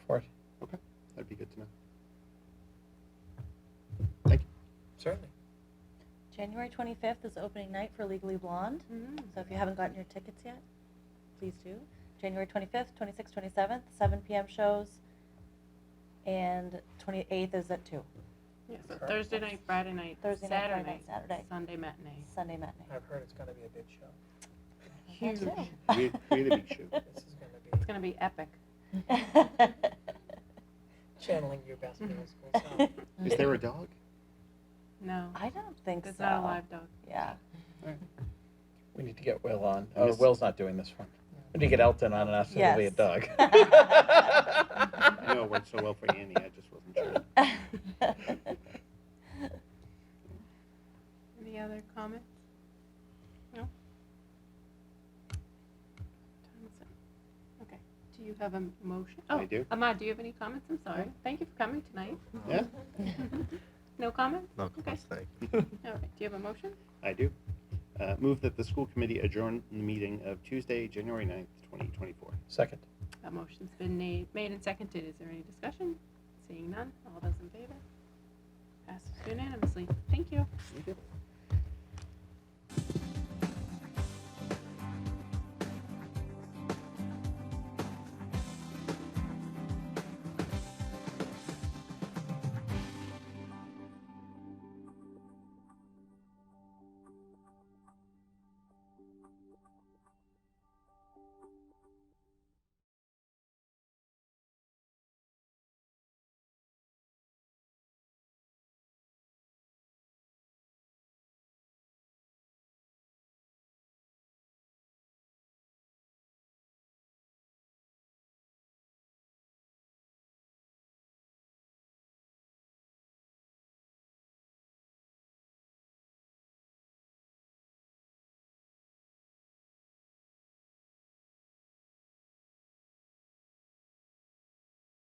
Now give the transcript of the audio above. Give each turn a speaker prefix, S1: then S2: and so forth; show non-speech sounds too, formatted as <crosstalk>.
S1: January 25th is opening night for Legally Blonde. So if you haven't gotten your tickets yet, please do. January 25th, 26th, 27th, 7 p.m. shows, and 28th is at 2.
S2: Yeah, so Thursday night, Friday night,
S1: Thursday night, Friday
S2: Saturday
S1: night, Saturday.
S2: Sunday matinee.
S1: Sunday matinee.
S3: I've heard it's gonna be a big
S4: <laughs>
S3: show.
S1: That
S2: Huge.
S1: too.
S5: <laughs> We- we had a big show.
S3: This is gonna
S2: It's
S3: be
S2: gonna be epic.
S3: channeling your best
S4: <laughs>
S3: middle school
S1: <laughs>
S3: self.
S5: Is there a dog?
S2: No,
S1: I don't think
S2: it's
S1: so.
S2: not a live dog.
S1: Yeah.
S4: We need to get Will on.
S5: I
S4: Oh,
S5: miss-
S4: Will's not doing this one. We need to get Elton on and ask him to be a <laughs>
S1: Yes.
S4: dog.
S5: I know it worked so well for Annie. I just wasn't sure. <laughs>
S1: <laughs>
S4: <laughs>
S2: Any other comments? No? Time is up. Okay, do you have a motion?
S5: I
S2: Oh,
S5: do.
S2: Ahmad, do you have any comments? I'm sorry. Thank you for coming tonight.
S5: Yeah?
S2: <laughs> No comment?
S6: No,
S2: Okay.
S6: thank you.
S2: All right, do you have a motion?
S5: I do. Uh, move that the school committee adjourn the meeting of Tuesday, January 9th, 2024.
S4: Second.
S2: That motion's been na- made and seconded. Is there any discussion? Seeing none, all those in favor? Passes unanimously. Thank you.
S5: Thank you.